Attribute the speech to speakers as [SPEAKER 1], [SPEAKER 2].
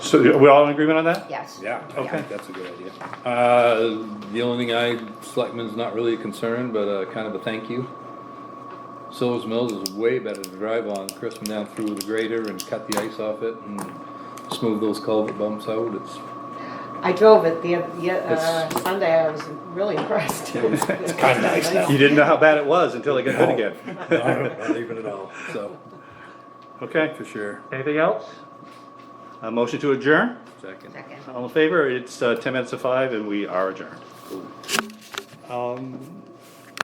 [SPEAKER 1] So are we all in agreement on that?
[SPEAKER 2] Yes.
[SPEAKER 3] Yeah, I
[SPEAKER 1] Okay.
[SPEAKER 3] think that's a good idea. Uh, the only thing I, selectmen's not really a concern, but, uh, kind of a thank you. Silver's Mills is way better to drive on, Chris went down through with the grader and cut the ice off it and smooth those culvert bumps out, it's,
[SPEAKER 2] I drove it the, oth- the, uh,
[SPEAKER 3] It's-
[SPEAKER 2] Sunday, I was really impressed. It's
[SPEAKER 4] kinda nice now.
[SPEAKER 1] You didn't know how bad it was until it got good again.
[SPEAKER 3] not even at all, so,
[SPEAKER 1] Okay,
[SPEAKER 3] for sure,
[SPEAKER 1] anything else? A motion to adjourn?
[SPEAKER 3] second.
[SPEAKER 2] Second.
[SPEAKER 1] All in favor? It's uh, ten minutes to five and we are adjourned. Um,